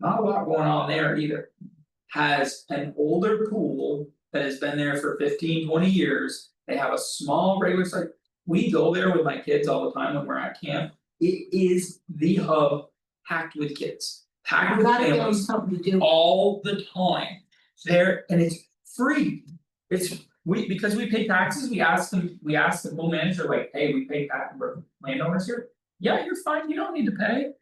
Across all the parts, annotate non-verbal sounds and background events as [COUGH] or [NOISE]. not a lot going on there either. Has an older pool that has been there for 15, 20 years, they have a small regular site. We go there with my kids all the time when we're at camp, it is the hub packed with kids, packed I with gotta give them families something to do, all the time. There, and it's free, it's, we, because we pay taxes, we ask them, we ask the pool manager like, hey, we pay tax, we're landowners here. Yeah, you're fine, you don't need to pay.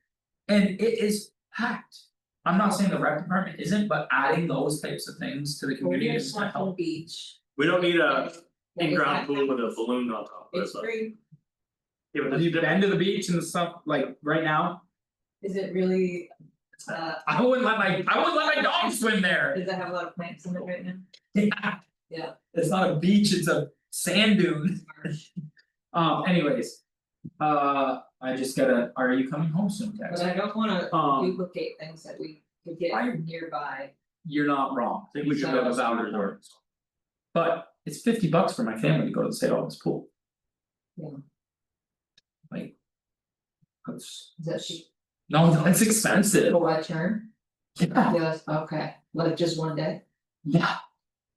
And it is packed. I'm not saying the rec department isn't, but adding those types of things to the we're community near is gonna Swanton help. Beach. We don't need a What was in-ground that? pool with a balloon on top of it, It's but. free, Yeah, but Have that's you different. been to the beach and stuff, like, right now? is it really, uh, I wouldn't let my, I wouldn't let my dog swim there. does that have a lot of plants in it right now? Yeah. Yeah. It's not a beach, it's a sand [LAUGHS] dune. Um anyways. Uh I just gotta, are you coming home soon, But Tex? I don't wanna Um duplicate things that we could get I- nearby, you're not wrong, I think we should So- have a sound resort. but it's fifty bucks for my family to go to the St. Albans pool. Yeah. Like. That's, is that she, no, that's expensive. go by turn? Yeah, Yes, okay, like just one day, yeah,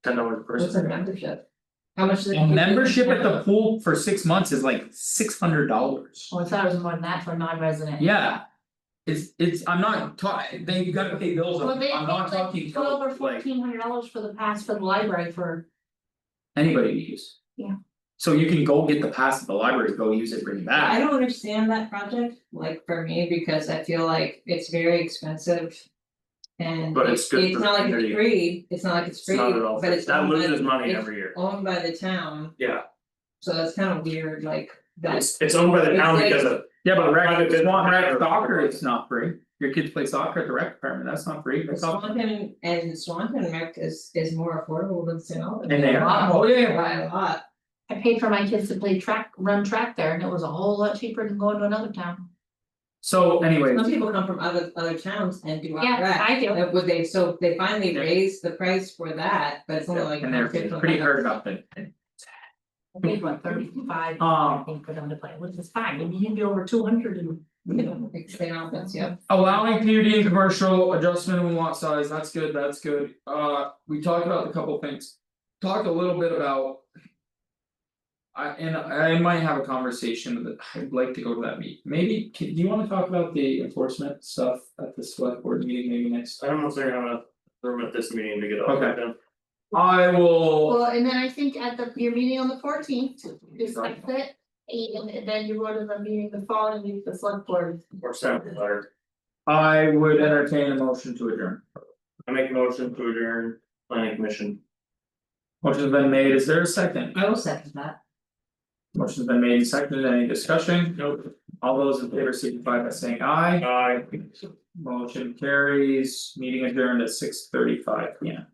Ten dollars per what's a person. membership? How much? does it a cost? membership at the pool for six months is like six hundred dollars. Well, I thought it was more than that for non-resident. Yeah. It's it's, I'm not talking, they you gotta pay bills, I'm Well, they I'm not paid like talking for Twelve or like fourteen hundred dollars for the pass for the library for, anybody to use. Yeah. So you can go get the pass at the library, go use it, bring it back, I don't understand that project, like for me, because I feel like it's very expensive. And But it's it's good it's for not like community. it's free, it's not like it's It's free, not at all, but free. it's that owned by, loses money it's every year. owned by the town, Yeah, so that's kind of weird, like that's. it's it's owned by the It's town like- because of, yeah, but Private rec, business. Swan rec soccer, it's not free, your kids play soccer at the rec department, that's not free, that's all. Swanton and Swanton Rec is is more affordable than St. Albans. And they A lot are, more, oh yeah, by a lot, I paid for my kids to play track, run track there and it was a whole lot cheaper than going to another town. so anyway, some people come from other other towns and do our Yeah, rec, I do. that would they, so they finally Yeah. raised the price for that, but it's only like. and they're $150. pretty hard about that. I paid what, thirty-five, I Um think, for them to play, which is fine. I mean, you can get over two hundred and, you know. Like St. Albans, yeah. allowing PUD and commercial adjustment in lot size, that's good, that's good, uh, we talked about a couple things. Talked a little bit about. I and I might have a conversation that I'd like to go to that meet, maybe, can, do you wanna talk about the enforcement stuff at the select board meeting maybe next? I don't know if they're gonna have enough room at this meeting to get all of Okay. it done. I will, Well, and then I think at the, your meeting on the fourteenth, discuss it. And then you go to the meeting the following week, the select board. Or send a letter. I would entertain a motion to adjourn. I make a motion to adjourn planning commission. Motion's been made, is there a second? I will second that. Motion's been made and seconded, any discussion? Nope. All those in favor signify by saying aye. Aye. Motion carries, meeting adjourned at six thirty five, yeah.